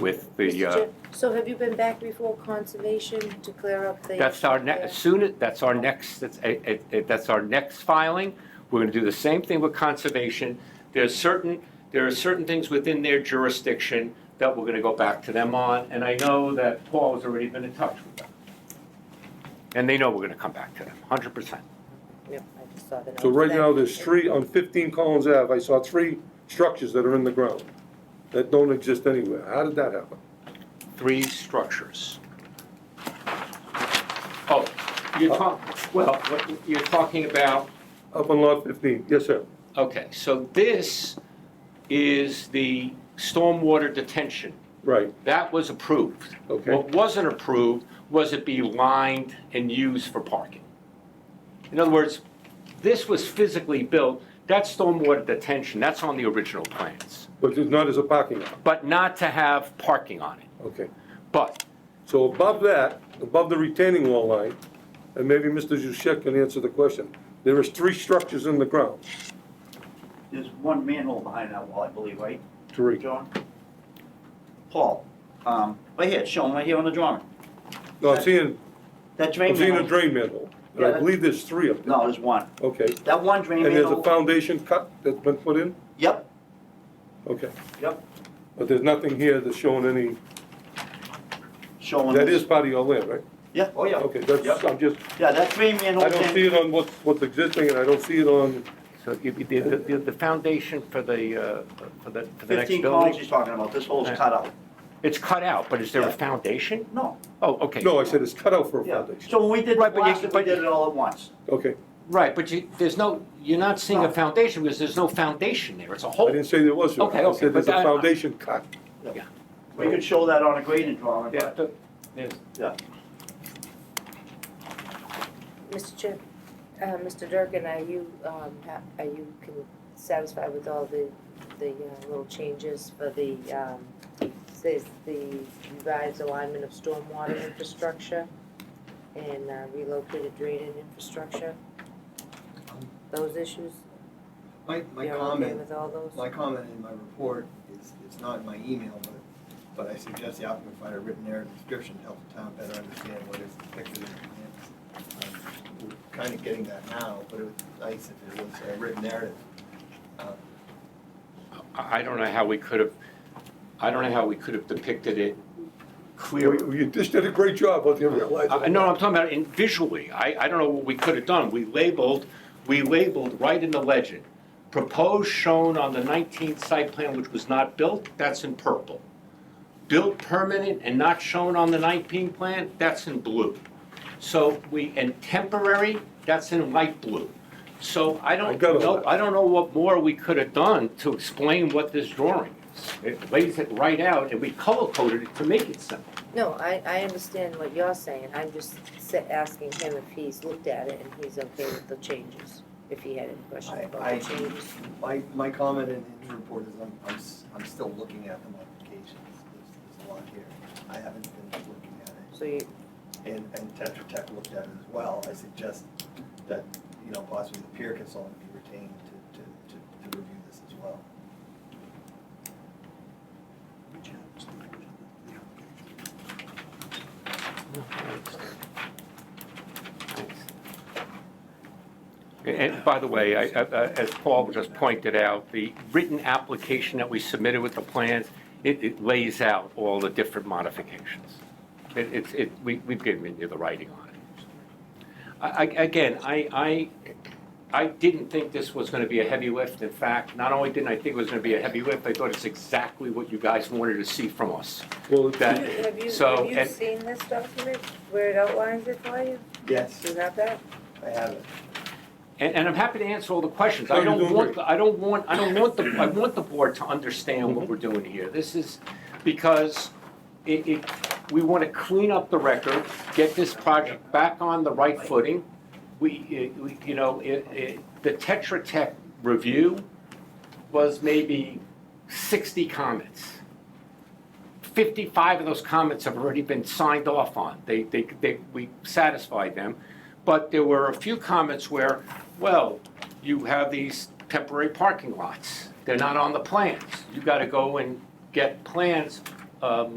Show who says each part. Speaker 1: with the,
Speaker 2: Mr.
Speaker 1: uh,
Speaker 2: Chair, So have you been back before conservation to clear up the?
Speaker 1: that's our
Speaker 2: issue
Speaker 1: next,
Speaker 2: there?
Speaker 1: as soon as, that's our next, that's, eh, eh, eh, that's our next filing. We're gonna do the same thing with conservation. There's certain, there are certain things within their jurisdiction that we're gonna go back to them on, and I know that Paul has already been in touch with them. And they know we're gonna come back to them, hundred percent.
Speaker 2: Yep, I just saw the
Speaker 3: So
Speaker 2: note
Speaker 3: right
Speaker 2: today.
Speaker 3: now, there's three, on 15 Collins Ave, I saw three structures that are in the ground that don't exist anywhere. How did that happen?
Speaker 1: Three structures. Oh, you're talking, well, what- you're talking about
Speaker 3: Up on Lot 15, yes, sir.
Speaker 1: Okay, so this is the stormwater detention.
Speaker 3: Right,
Speaker 1: That was approved.
Speaker 3: Okay.
Speaker 1: What wasn't approved was it be lined and used for parking. In other words, this was physically built, that stormwater detention, that's on the original plans,
Speaker 3: but it's not as a parking lot,
Speaker 1: but not to have parking on it.
Speaker 3: okay.
Speaker 1: But
Speaker 3: So above that, above the retaining wall line, and maybe Mr. Juszek can answer the question, there is three structures in the ground.
Speaker 4: There's one manhole behind that wall, I believe, right,
Speaker 3: Three.
Speaker 4: John? Paul, um, right here, shown right here on the drawing.
Speaker 3: No, I'm seeing,
Speaker 4: That drain
Speaker 3: I'm seeing a
Speaker 4: manhole.
Speaker 3: drain manhole, and I believe there's three up there.
Speaker 4: No, there's one.
Speaker 3: Okay,
Speaker 4: That one drain
Speaker 3: and there's a
Speaker 4: manhole.
Speaker 3: foundation cut that's been put in?
Speaker 4: Yep,
Speaker 3: Okay,
Speaker 4: yep,
Speaker 3: but there's nothing here that's showing any,
Speaker 4: showing.
Speaker 3: that
Speaker 4: this.
Speaker 3: is part of your land, right?
Speaker 4: Yeah, oh yeah.
Speaker 3: Okay, that's,
Speaker 4: Yep.
Speaker 3: I'm just,
Speaker 4: Yeah, that drain manhole.
Speaker 3: I don't
Speaker 4: thing-
Speaker 3: see it on what's, what's existing, and I don't see it on,
Speaker 1: so you- the, the- the, the foundation for the, uh, for the, for the next
Speaker 4: Fifteen columns
Speaker 1: building,
Speaker 4: he's talking about, this hole's
Speaker 1: Yeah.
Speaker 4: cut out.
Speaker 1: it's cut out, but is there a
Speaker 4: Yeah.
Speaker 1: foundation?
Speaker 4: No,
Speaker 1: Oh, okay.
Speaker 3: no, I said it's cut out for a
Speaker 4: yeah,
Speaker 3: foundation.
Speaker 4: so when we did the
Speaker 1: Right, but you-
Speaker 4: plastic, we
Speaker 1: but-
Speaker 4: did it all at once.
Speaker 3: Okay,
Speaker 1: Right, but you, there's no, you're not seeing a
Speaker 4: No.
Speaker 1: foundation because there's no foundation there, it's a
Speaker 3: I
Speaker 1: hole.
Speaker 3: didn't say there was, Your Honor.
Speaker 1: Okay,
Speaker 3: I
Speaker 1: okay,
Speaker 3: said there's
Speaker 1: but
Speaker 3: a
Speaker 1: I-
Speaker 3: foundation cut.
Speaker 4: We could show that on a grading drawing,
Speaker 1: Yeah,
Speaker 4: but,
Speaker 1: the- there's-
Speaker 4: yeah.
Speaker 2: Mr. Chair, uh, Mr. Durkin, are you, um, ha- are you con- satisfied with all the, the uh, little changes for the, um, says the revised alignment of stormwater infrastructure and uh, relocated draining infrastructure? Those issues?
Speaker 5: My, Um, my
Speaker 2: You're okay
Speaker 5: comment,
Speaker 2: with all those?
Speaker 5: my comment in my report is, it's not in my email, but, but I suggest the applicant find a written narrative description to help the town better understand what is depicted in the plans. Um, We're Kind of getting that now, but it would be nice if it was a written narrative. Uh,
Speaker 1: I I don't know how we could have, I don't know how we could have depicted it clearly.
Speaker 3: You you just did a great job, but you realize.
Speaker 1: I- No, I'm talking about in visually, I, I don't know what we could have done. We labeled, we labeled right in the legend, proposed shown on the 19th site plan which was not built, that's in purple. Built permanent and not shown on the 19 plan, that's in blue. So we, and temporary, that's in light blue. So I
Speaker 3: I
Speaker 1: don't
Speaker 3: got all
Speaker 1: know,
Speaker 3: that.
Speaker 1: I don't know what more we could have done to explain what this drawing is. It lays it right out and we color coded it to make it simple.
Speaker 2: No, I, I understand what you're saying, I'm just sa- asking him if he's looked at it and he's okay with the changes, if he had any questions
Speaker 5: I-
Speaker 2: about
Speaker 5: I-
Speaker 2: the changes.
Speaker 5: My, my comment in in the report is I'm, I'm, s- I'm still looking at the modifications, there's, there's a lot here. I haven't been looking at it.
Speaker 2: So you,
Speaker 5: and, and Tetra Tech looked at it as well, I suggest that, you know, possibly the peer consultant be retained to, to, to, to review this as well.
Speaker 1: And by the way, I- I- as Paul just pointed out, the written application that we submitted with the plans, it it lays out all the different modifications. It- It's, it, we- we've given you the writing on it. I- I- Again, I, I, I didn't think this was going to be a heavy lift. In fact, not only didn't I think it was going to be a heavy lift, I thought it's exactly what you guys wanted to see from us.
Speaker 3: Well, it's-
Speaker 1: That-
Speaker 2: have you, have you
Speaker 1: So,
Speaker 2: have you
Speaker 1: and-
Speaker 2: seen this document where it outlines it for you? Do
Speaker 5: Yes,
Speaker 2: you have that?
Speaker 5: I have it.
Speaker 1: And, and I'm happy to answer all the questions.
Speaker 3: No,
Speaker 1: I
Speaker 3: you're
Speaker 1: don't
Speaker 3: doing
Speaker 1: want, I don't want, I don't want the, I want the board to understand what we're doing here. This is because it, it, we want to clean up the record, get this project back on the right footing. We, it- we, you know, it, it, the Tetra Tech review was maybe sixty comments. Fifty-five of those comments have already been signed off on. They, they, they, we satisfied them. But there were a few comments where, well, you have these temporary parking lots. They're not on the plans. You gotta go and get plans, um,